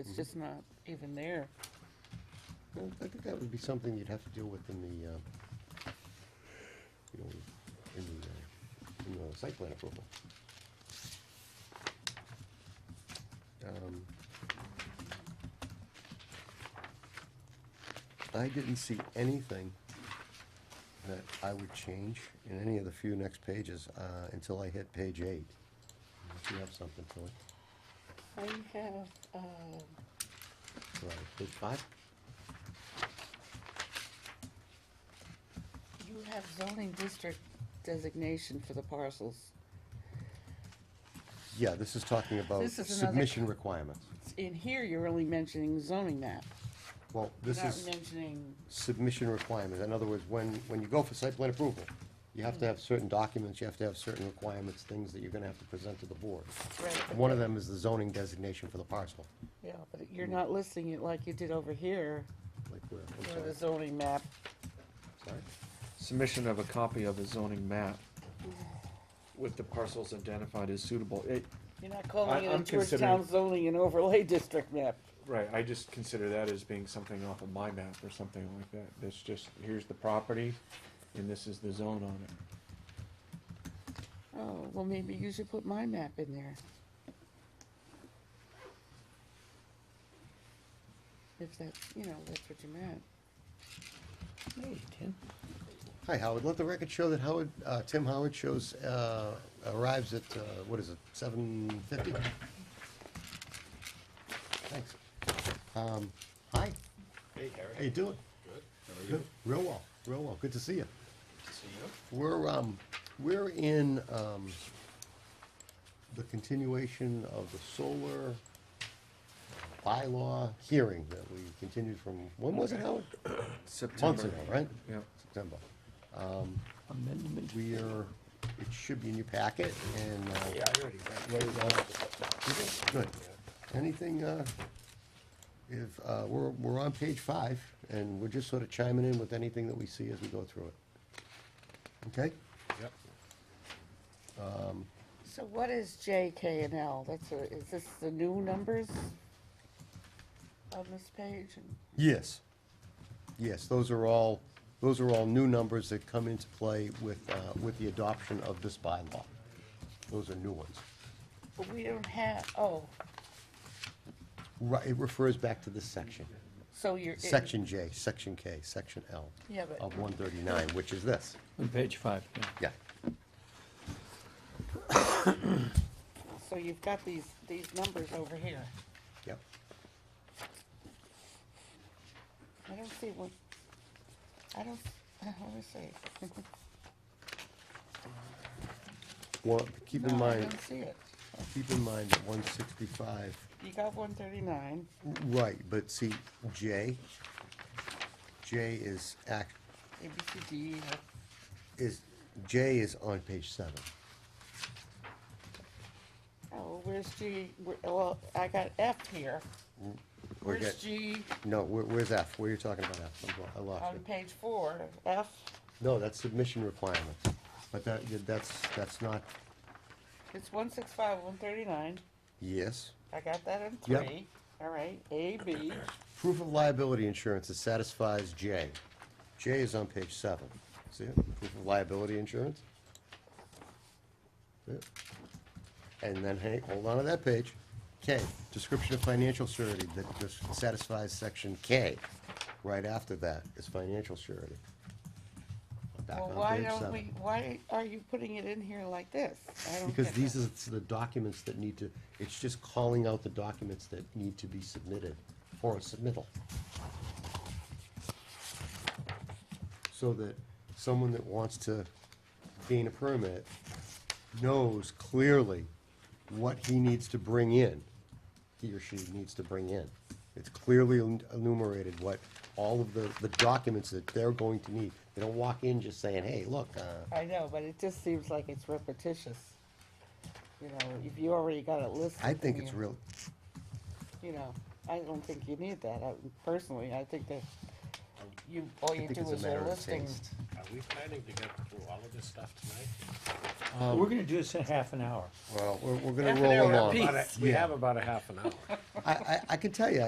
Mm-hmm. It's just not even there. Well, I think that would be something you'd have to deal with in the, uh, you know, in the, uh, in the site plan approval. Um, I didn't see anything that I would change in any of the few next pages uh, until I hit page eight. If you have something, Tilly. I have, um, Right, page five? you have zoning district designation for the parcels. Yeah, this is talking about This is another- submission requirements. In here, you're only mentioning zoning map, Well, this not is mentioning, submission requirements. In other words, when, when you go for site plan approval, you have to have certain documents, you have to have certain requirements, things that you're gonna have to present to the board. right, And One of them is the zoning designation for the parcel. yeah, but Mm-hmm. you're not listing it like you did over here, Like where, I'm for the sorry, zoning map. sorry. Submission of a copy of a zoning map with the parcels identified as suitable. It, You're not I- calling it a I'm considering- Georgetown zoning and overlay district map. right, I just consider that as being something off of my map or something like that. That's just, here's the property and this is the zone on it. Oh, well, maybe you should put my map in there. If that's, you know, that's what you meant. Hi, Howard. Let the record show that Howard, uh, Tim Howard shows, uh, arrives at, uh, what is it, seven fifty? Thanks. Um, hi, Hey, Harry. how you doing? Good. How are you? Good. Real well, real well. Good to see you. Good to see you. We're, um, we're in, um, the continuation of the solar bylaw hearing that we continued from, when was it, Howard? Months ago, right? Yep. September. Amendment. We are, it should be in your packet and, uh. Yeah, I already right, uh, Good. Anything, uh, if, uh, we're, we're on page five and we're just sort of chiming in with anything that we see as we go through it. Okay? Yep. So what is J, K, and L? That's a, is this the new numbers on this page? And Yes. Yes, those are all, those are all new numbers that come into play with, uh, with the adoption of this bylaw. Those are new ones. But we don't have, oh, Right, it refers back to this section. so you're. it- Section J, Section K, Section L Yeah, but- of one thirty-nine, which is this. On page five, yeah. Yeah. So you've got these, these numbers over here. Yep. I don't see what, I don't, let me see. Well, keep in No, I mind, don't see it. keep in mind that one sixty-five, You got one thirty-nine. right, but see, J, J is act, A, B, C, D, E, F. is, J is on page seven. Oh, where's G? Where- Well, I got F here. Mm, We're Where's get- G No, where, where's F? Where are you talking about F? I'm blo- I lost on it. page four? F, No, that's submission requirements, but that, that's, that's not, it's one six five, one thirty-nine. yes. I got that in Yep. three. All right, A, B. Proof of liability insurance that satisfies J. J is on page seven. See it? Proof of liability insurance. See it? And then, hey, hold on to that page. K, description of financial surety that dis- satisfies section K. Right after that is financial surety. Back Well, on why page don't seven. we, why are you putting it in here like this? I don't Because get these that. are the documents that need to, it's just calling out the documents that need to be submitted for a submittal. So that someone that wants to gain a permit knows clearly what he needs to bring in, he or she needs to bring in. It's clearly enumerated what all of the, the documents that they're going to need. They don't walk in just saying, hey, look, uh, I know, but it just seems like it's repetitious. You know, if you already got it listed. I think it's here. real, you know, I don't think you need that. I, personally, I think that you, all I you think do it's a is a matter of listing. taste. Are we planning to get through all of this stuff tonight? We're gonna do this in half an hour. Well, we're, we're Half gonna an roll hour along. apiece. About a- We have about a half an hour. I, I, I can tell you,